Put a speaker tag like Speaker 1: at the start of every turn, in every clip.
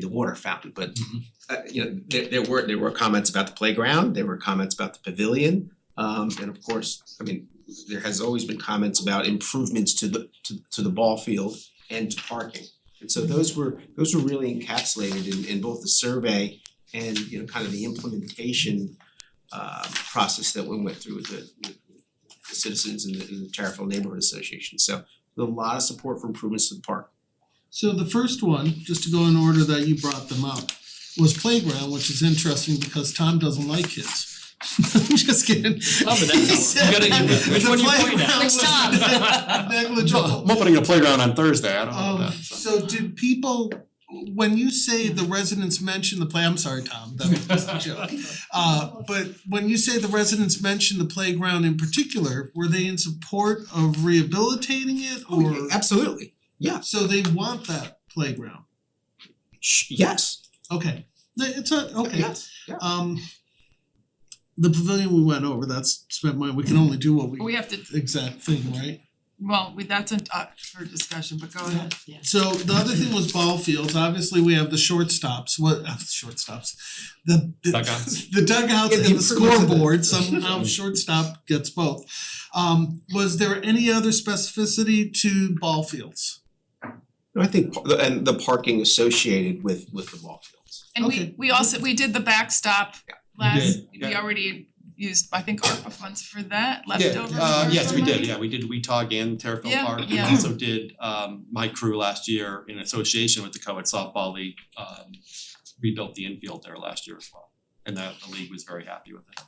Speaker 1: the water fountain, but uh you know, there there were there were comments about the playground, there were comments about the pavilion. Um and of course, I mean, there has always been comments about improvements to the to to the ball field and to parking. And so those were those were really encapsulated in in both the survey and, you know, kind of the implementation uh process that we went through with the with the citizens and the and the Tarrytown Neighborhood Association. So a lot of support for improvements to the park.
Speaker 2: So the first one, just to go in order that you brought them up, was playground, which is interesting because Tom doesn't like kids. I'm just kidding.
Speaker 3: Oh, but that's-
Speaker 2: He said
Speaker 3: you gotta-
Speaker 2: that
Speaker 3: which
Speaker 2: the
Speaker 3: one you pointing at?
Speaker 2: playground
Speaker 4: Which
Speaker 2: was
Speaker 4: Tom?
Speaker 2: Negligible.
Speaker 3: I'm opening a playground on Thursday, I don't
Speaker 4: Oh,
Speaker 3: know
Speaker 2: Um
Speaker 3: that.
Speaker 2: so did people, when you say the residents mention the play, I'm sorry, Tom, that was just a joke. Uh but when you say the residents mention the playground in particular, were they in support of rehabilitating it
Speaker 1: Oh,
Speaker 2: or?
Speaker 1: Absolutely,
Speaker 2: So they want that playground,
Speaker 1: Sh- yes,
Speaker 2: okay, Th- it's a, okay,
Speaker 1: yes.
Speaker 2: Um the pavilion we went over, that's spent money, we can only do what
Speaker 4: We
Speaker 2: we
Speaker 4: have to,
Speaker 2: exact thing, right?
Speaker 4: well, we, that's an up for discussion, but go ahead.
Speaker 2: So the other thing was ball fields, obviously we have the shortstops, what uh shortstops, the the
Speaker 3: Dugouts.
Speaker 2: the dugouts
Speaker 1: Yeah, the
Speaker 2: and
Speaker 1: improvements
Speaker 2: the
Speaker 1: of the-
Speaker 2: scoreboard, somehow shortstop gets both. Um was there any other specificity to ball fields?
Speaker 1: No, I think, par- and the parking associated with with the ball fields.
Speaker 4: And
Speaker 2: Okay.
Speaker 4: we, we also, we did the backstop last, we
Speaker 3: yeah.
Speaker 4: already used, I think, ARPA funds for that,
Speaker 3: Yeah,
Speaker 4: leftover.
Speaker 3: uh, yes, we
Speaker 4: ARPA
Speaker 3: did,
Speaker 4: money.
Speaker 3: yeah, we did WeTalk and Terriffill
Speaker 4: Yeah,
Speaker 3: Park, we
Speaker 4: yeah.
Speaker 3: also did um my crew last year in association with the co-ed softball league um rebuilt the infield there last year as well, and the the league was very happy with it.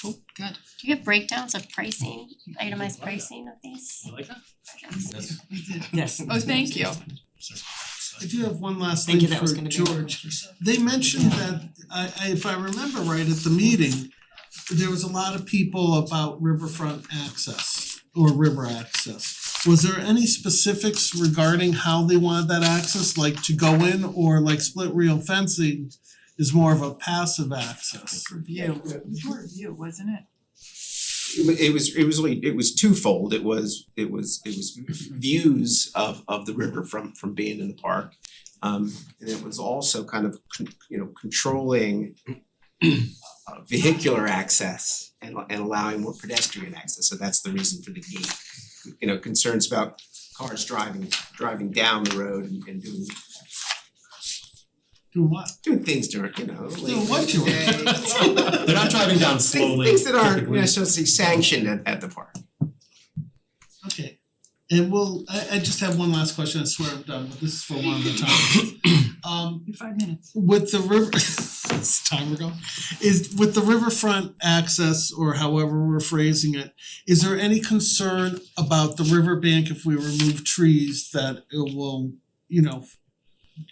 Speaker 4: Cool, good.
Speaker 5: Do you have breakdowns of pricing, itemized pricing of these projects?
Speaker 4: We did.
Speaker 6: Yes.
Speaker 4: Oh, thank you.
Speaker 2: I do have one last thing
Speaker 6: Thank
Speaker 2: for
Speaker 6: you,
Speaker 2: George.
Speaker 6: that was gonna be.
Speaker 2: They mentioned that, I I if I remember right at the meeting, there was a lot of people about riverfront access or river access. Was there any specifics regarding how they wanted that access, like to go in or like split rail fencing is more of a passive access?
Speaker 4: Review, it was more review, wasn't it?
Speaker 1: It wa- It was it was really, it was twofold, it was it was it was views of of the river from from being in the park. Um and it was also kind of con- you know, controlling uh, vehicular access and and allowing more pedestrian access, so that's the reason for the gate. You know, concerns about cars driving driving down the road and and doing
Speaker 2: Do what?
Speaker 1: doing things during, you know, late in
Speaker 2: what,
Speaker 1: the
Speaker 2: George?
Speaker 1: day.
Speaker 3: They're not driving down
Speaker 1: Things
Speaker 3: slowly.
Speaker 1: things that aren't
Speaker 3: typically.
Speaker 1: necessarily sanctioned at at the park.
Speaker 2: Okay, and we'll, I I just have one last question, I swear I'm done, but this is for one of the times. Um
Speaker 4: Your Five minutes.
Speaker 2: with the river, it's time ago, is with the riverfront access or however we're phrasing it, is there any concern about the riverbank if we remove trees that it will, you know,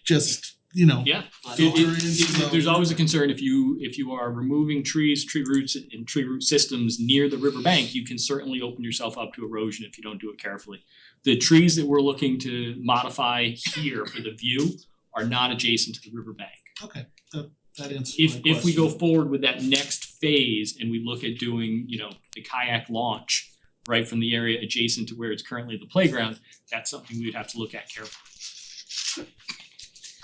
Speaker 2: just, you know,
Speaker 7: Yeah, it
Speaker 2: filter
Speaker 7: it-
Speaker 2: into
Speaker 7: it- there's always a concern if you if you are removing trees, tree roots and tree root systems near the riverbank, you can certainly open yourself up to erosion if you don't do it carefully. The trees that we're looking to modify here for the view are not adjacent to the riverbank.
Speaker 2: Okay, that that answers my
Speaker 7: If
Speaker 2: question.
Speaker 7: if we go forward with that next phase and we look at doing, you know, the kayak launch right from the area adjacent to where it's currently the playground, that's something we would have to look at carefully.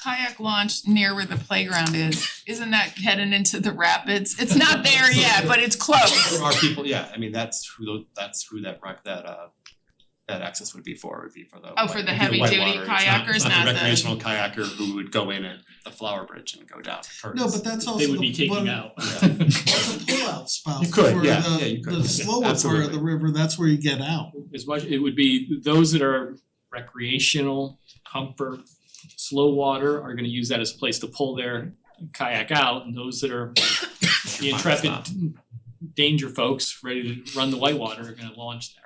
Speaker 4: Kayak launch near where the playground is, isn't that heading into the rapids? It's not there yet, but it's close.
Speaker 3: There are people, yeah, I mean, that's who tho- that's who that rec that uh that access would be for, would be for the
Speaker 4: Oh, for
Speaker 3: white- it'd
Speaker 4: the
Speaker 3: be
Speaker 4: heavy
Speaker 3: white
Speaker 4: duty
Speaker 3: water. It's not- it's
Speaker 4: kayakers, not the-
Speaker 3: recreational kayaker who would go in at the Flower Bridge and go down first.
Speaker 2: No, but that's also
Speaker 7: They would be
Speaker 2: the
Speaker 7: taking
Speaker 2: one,
Speaker 7: out.
Speaker 2: that's a pullout spout
Speaker 3: You could,
Speaker 2: for
Speaker 3: yeah, yeah, you
Speaker 2: the
Speaker 3: could,
Speaker 2: the
Speaker 3: yeah,
Speaker 2: slower part of
Speaker 3: absolutely.
Speaker 2: the river, that's where you get out.
Speaker 7: as much, it would be those that are recreational, comfort, slow water are gonna use that as a place to pull their kayak out, and those that are the intrepid danger folks ready to run the whitewater are gonna launch there.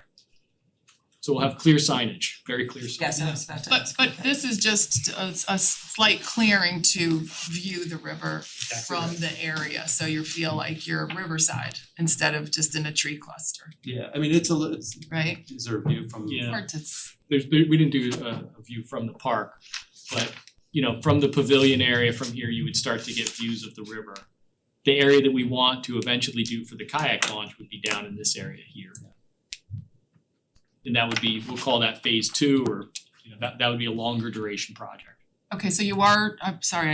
Speaker 7: So we'll have clear signage, very clear signage.
Speaker 6: Yes, I was about to
Speaker 4: But
Speaker 6: ask.
Speaker 4: but this is just a a slight clearing to view the river from the area, so you feel like you're riverside instead of just in a tree cluster,
Speaker 3: Yeah, I mean, it's a li- it's
Speaker 4: right?
Speaker 3: is there a view from
Speaker 7: Yeah.
Speaker 4: Hard to s-
Speaker 7: there's there, we didn't do a a view from the park, but you know, from the pavilion area from here, you would start to get views of the river. The area that we want to eventually do for the kayak launch would be down in this area here. And that would be, we'll call that phase two or, you know, that that would be a longer duration project.
Speaker 4: Okay, so you are, I'm sorry,